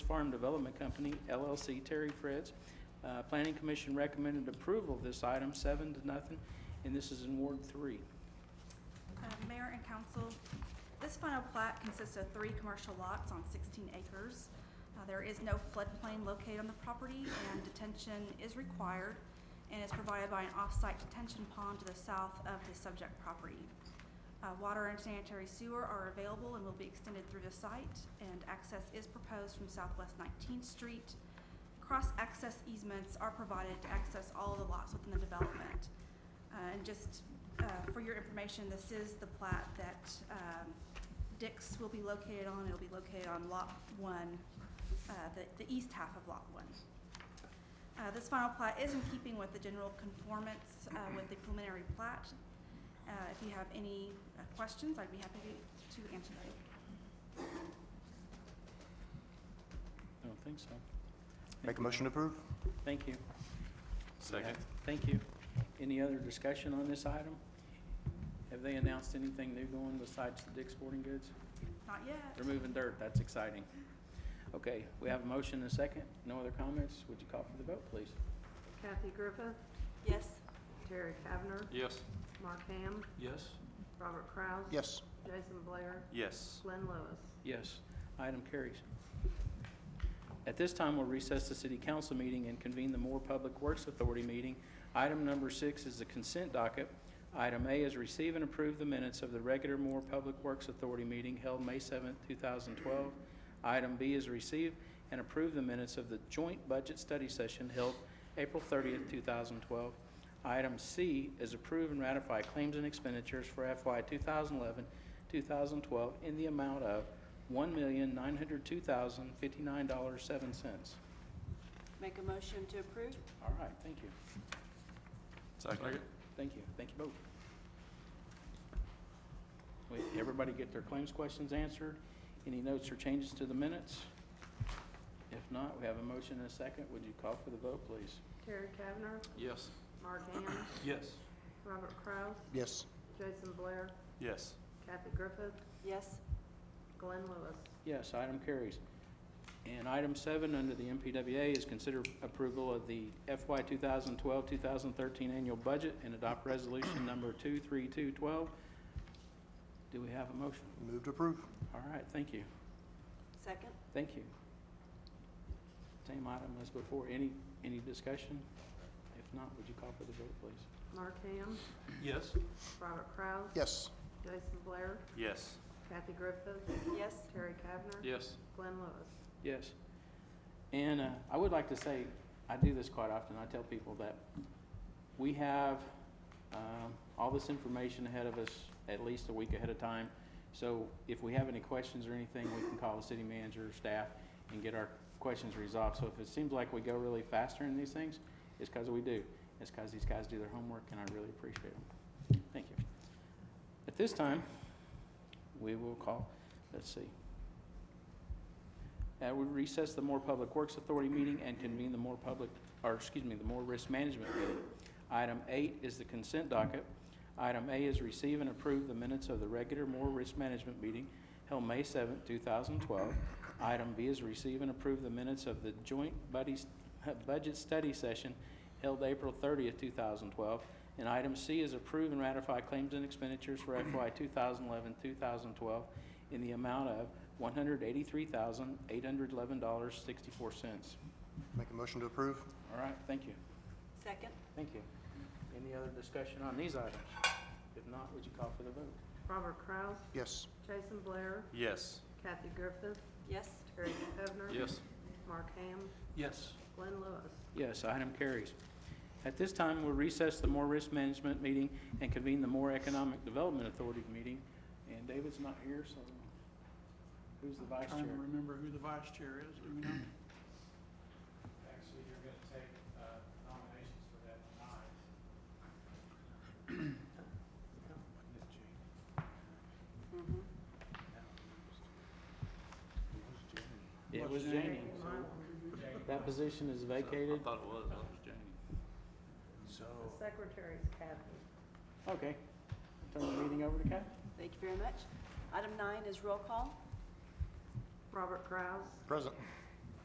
Farm Development Company, LLC, Terry Fritz. Uh, Planning Commission recommended approval of this item, seven to nothing, and this is in Ward Three. Um, Mayor and council, this final plat consists of three commercial lots on 16 acres. Uh, There is no floodplain located on the property, and detention is required and is provided by an off-site detention pond to the south of the subject property. Uh, Water and sanitary sewer are available and will be extended through the site, and access is proposed from southwest 19th Street. Cross-access easements are provided to access all the lots within the development. Uh, And just uh, for your information, this is the plat that um, Dix will be located on. It'll be located on Lot 1, uh, the the east half of Lot 1. Uh, This final plat is in keeping with the general conformance uh, with the preliminary plat. Uh, If you have any uh, questions, I'd be happy to- to answer them. I don't think so. Make a motion to approve? Thank you. Second. Thank you. Any other discussion on this item? Have they announced anything new going besides the Dick's Sporting Goods? Not yet. They're moving dirt, that's exciting. Okay, we have a motion and a second. No other comments? Would you call for the vote, please? Kathy Griffith, Yes. Terry Kavner, Yes. Mark Ham, Yes. Robert Kraus. Yes. Jason Blair, Yes. Glenn Lewis. Yes, item carries. At this time, we'll recess the city council meeting and convene the Moore Public Works Authority meeting. Item number six is the consent docket. Item A is receive and approve the minutes of the regular Moore Public Works Authority meeting held May 7, 2012. Item B is receive and approve the minutes of the joint budget study session held April 30, 2012. Item C is approve and ratify claims and expenditures for FY 2011, 2012 in the amount of $1,902,059.07. Make a motion to approve? All right, thank you. Second. Thank you, thank you both. Wait, everybody get their claims questions answered? Any notes or changes to the minutes? If not, we have a motion and a second. Would you call for the vote, please? Terry Kavner, Yes. Mark Ham, Yes. Robert Kraus, Yes. Jason Blair, Yes. Kathy Griffith, Yes. Glenn Lewis. Yes, item carries. And item seven, under the MPWA, is consider approval of the FY 2012-2013 annual budget and adopt resolution number 23212. Do we have a motion? Move to approve? All right, thank you. Second? Thank you. Same item as before. Any, any discussion? If not, would you call for the vote, please? Mark Ham, Yes. Robert Kraus. Yes. Jason Blair, Yes. Kathy Griffith, Yes. Terry Kavner. Yes. Glenn Lewis. Yes. And uh, I would like to say, I do this quite often. I tell people that we have um, all this information ahead of us at least a week ahead of time. So if we have any questions or anything, we can call the city manager or staff and get our questions resolved. So if it seems like we go really faster in these things, it's because we do. It's because these guys do their homework, and I really appreciate them. Thank you. At this time, we will call, let's see. Uh, we recess the Moore Public Works Authority meeting and convene the Moore Public, or excuse me, the Moore Risk Management meeting. Item eight is the consent docket. Item A is receive and approve the minutes of the regular Moore Risk Management meeting held May seventh, two thousand twelve. Item B is receive and approve the minutes of the joint buddies, budget study session held April thirtieth, two thousand twelve. And item C is approve and ratify claims and expenditures for FY 2011-2012 in the amount of one hundred eighty-three thousand, eight hundred eleven dollars, sixty-four cents. Make a motion to approve? All right, thank you. Second? Thank you. Any other discussion on these items? If not, would you call for the vote? Robert Kraus, Yes. Jason Blair, Yes. Kathy Griffith, Yes. Terry Kavner. Yes. Mark Ham, Yes. Glenn Lewis. Yes, item carries. At this time, we'll recess the Moore Risk Management meeting and convene the Moore Economic Development Authority meeting. And David's not here, so who's the vice chair? Trying to remember who the vice chair is, do we know? Actually, you're gonna take uh, nominations for that tonight. Mm-hmm. It was Janie. so That position is vacated. I thought it was. I thought it was Janie. So, The secretary's Kathy. Okay. Turn the meeting over to Kathy. Thank you very much. Item nine is roll call. Robert Kraus, Present.